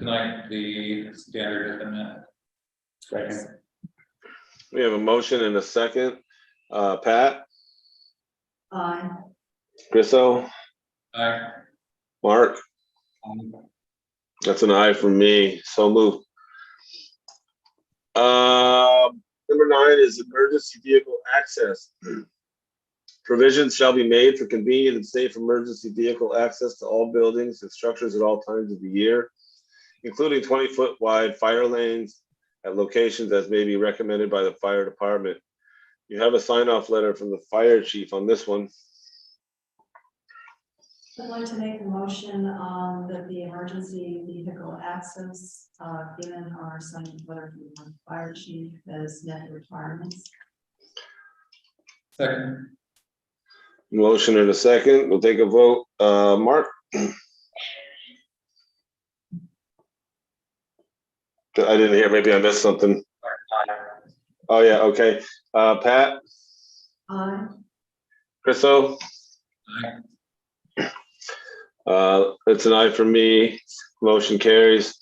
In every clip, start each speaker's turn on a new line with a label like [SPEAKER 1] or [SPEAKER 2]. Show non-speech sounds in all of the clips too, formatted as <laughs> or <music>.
[SPEAKER 1] tonight the standard amendment.
[SPEAKER 2] Second.
[SPEAKER 3] We have a motion and a second. Uh, Pat,
[SPEAKER 4] Aye.
[SPEAKER 3] Chriso,
[SPEAKER 1] Aye.
[SPEAKER 3] Mark, that's an aye from me, so moved. Uh, number nine is emergency vehicle access. <clears throat> Provisions shall be made for convenient and safe emergency vehicle access to all buildings and structures at all times of the year, including twenty-foot wide fire lanes at locations as may be recommended by the fire department. You have a sign-off letter from the fire chief on this one.
[SPEAKER 4] I'd like to make a motion um, that the emergency vehicle access, uh, given our second letter from the fire chief as net requirements.
[SPEAKER 1] Second,
[SPEAKER 3] Motion in a second. We'll take a vote. Uh, Mark? I didn't hear. Maybe I missed something. Oh, yeah, okay. Uh, Pat,
[SPEAKER 4] Aye.
[SPEAKER 3] Chriso? Uh, it's an aye for me. Motion carries.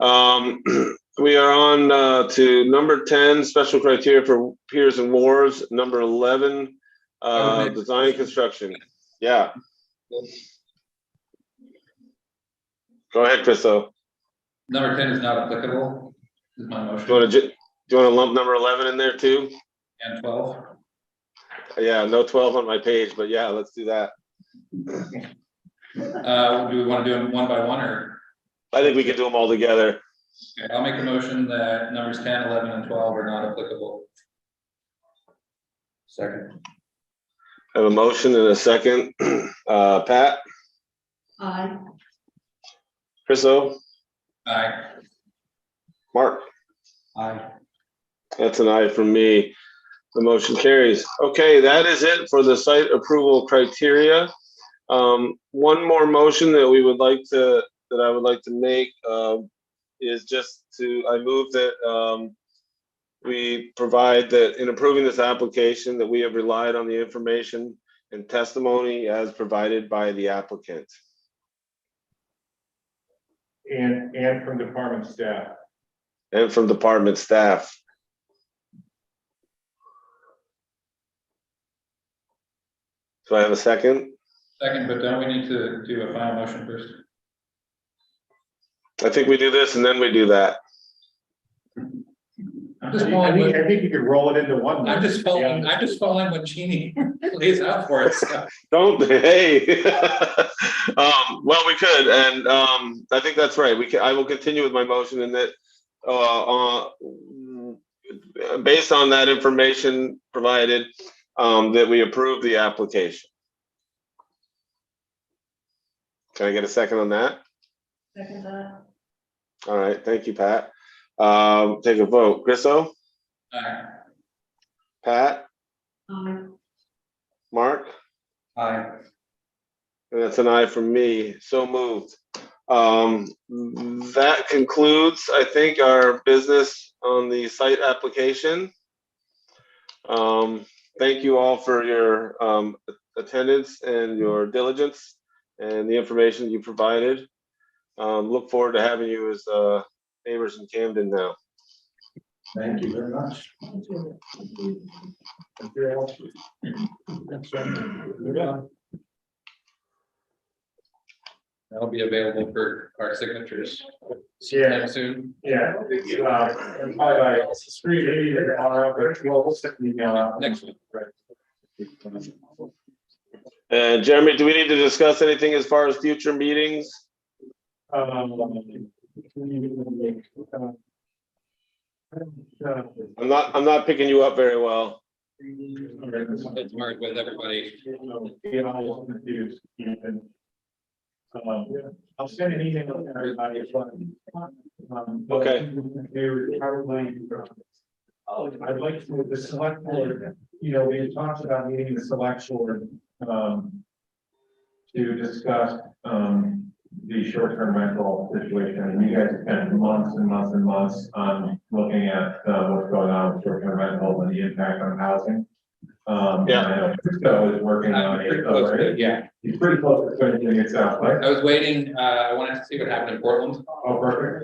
[SPEAKER 3] Um, <clears throat> we are on, uh, to number ten, special criteria for piers and wharves, number eleven, uh,
[SPEAKER 1] Okay.
[SPEAKER 3] design and construction. Yeah. Go ahead, Chriso.
[SPEAKER 1] number ten is not applicable, is my motion.
[SPEAKER 3] Do you wanna, ju- do you wanna lump number eleven in there too?
[SPEAKER 1] And twelve,
[SPEAKER 3] Yeah, no twelve on my page, but yeah, let's do that.
[SPEAKER 1] uh, do we want to do them one by one or?
[SPEAKER 3] I think we can do them all together.
[SPEAKER 1] Okay, I'll make a motion that numbers 10, 11, and twelve are not applicable.
[SPEAKER 2] Second.
[SPEAKER 3] I have a motion and a second. <clears throat> Uh, Pat,
[SPEAKER 4] Aye.
[SPEAKER 3] Chriso,
[SPEAKER 1] Aye.
[SPEAKER 3] Mark?
[SPEAKER 2] Aye.
[SPEAKER 3] That's an aye from me. The motion carries. Okay, that is it for the site approval criteria. Um, one more motion that we would like to, that I would like to make, um, is just to, I move that, um, we provide that in approving this application, that we have relied on the information and testimony as provided by the applicant.
[SPEAKER 5] And, and from department staff.
[SPEAKER 3] And from department staff. Do I have a second?
[SPEAKER 1] Second, but don't we need to do a final motion first?
[SPEAKER 3] I think we do this and then we do that.
[SPEAKER 1] I'm
[SPEAKER 5] I
[SPEAKER 1] just
[SPEAKER 5] think, I
[SPEAKER 1] following,
[SPEAKER 5] think-
[SPEAKER 1] what-
[SPEAKER 5] I think you could roll it into one.
[SPEAKER 1] I'm just following,
[SPEAKER 5] Yeah.
[SPEAKER 1] I'm just following what Cheney <laughs> lays out for us.
[SPEAKER 3] Don't, <laughs> hey. Um, well, we could, and, um, I think that's right. We can, I will continue with my motion in that, uh, uh, based on that information provided, um, that we approve the application. Can I get a second on that?
[SPEAKER 4] Second that.
[SPEAKER 3] All right, thank you, Pat. Um, take a vote. Grisso,
[SPEAKER 1] Aye.
[SPEAKER 3] Pat,
[SPEAKER 4] Aye.
[SPEAKER 3] Mark?
[SPEAKER 1] Aye.
[SPEAKER 3] And that's an aye from me. So moved. Um, that concludes, I think, our business on the site application. Um, thank you all for your, um, attendance and your diligence and the information you provided. Um, look forward to having you as, uh, neighbors in Camden now.
[SPEAKER 5] Thank you very much.
[SPEAKER 4] Thank you.
[SPEAKER 5] Thank you all. Thanks, John. You're done.
[SPEAKER 1] That'll be available for our signatures
[SPEAKER 5] Yeah,
[SPEAKER 1] soon.
[SPEAKER 5] yeah. Uh, and Probably by three eighty tomorrow, but we'll we'll send an email out.
[SPEAKER 1] Next week.
[SPEAKER 5] Right.
[SPEAKER 3] And Jeremy, do we need to discuss anything as far as future meetings?
[SPEAKER 5] Um, uh,
[SPEAKER 3] I'm not, I'm not picking you up very well.
[SPEAKER 1] It's marked with everybody.
[SPEAKER 5] I'll send an email to everybody. as well. Um, but
[SPEAKER 3] Okay.
[SPEAKER 5] They would probably. Oh, I'd like to, the select board, you know, we had talked about meeting the select board, um. To discuss, um, the short-term rental situation, and you guys spent months and months and months on looking at, uh, what's going on with short-term rentals and the impact on housing. Um,
[SPEAKER 3] Yeah.
[SPEAKER 5] I know Cisco is working on
[SPEAKER 1] I'm pretty
[SPEAKER 5] it,
[SPEAKER 1] close
[SPEAKER 5] though,
[SPEAKER 1] to
[SPEAKER 5] right?
[SPEAKER 1] it, Yeah,
[SPEAKER 5] He's pretty close to finishing it out, right?
[SPEAKER 1] I was waiting, uh, I wanted to see what happened in Portland.
[SPEAKER 5] Oh, perfect.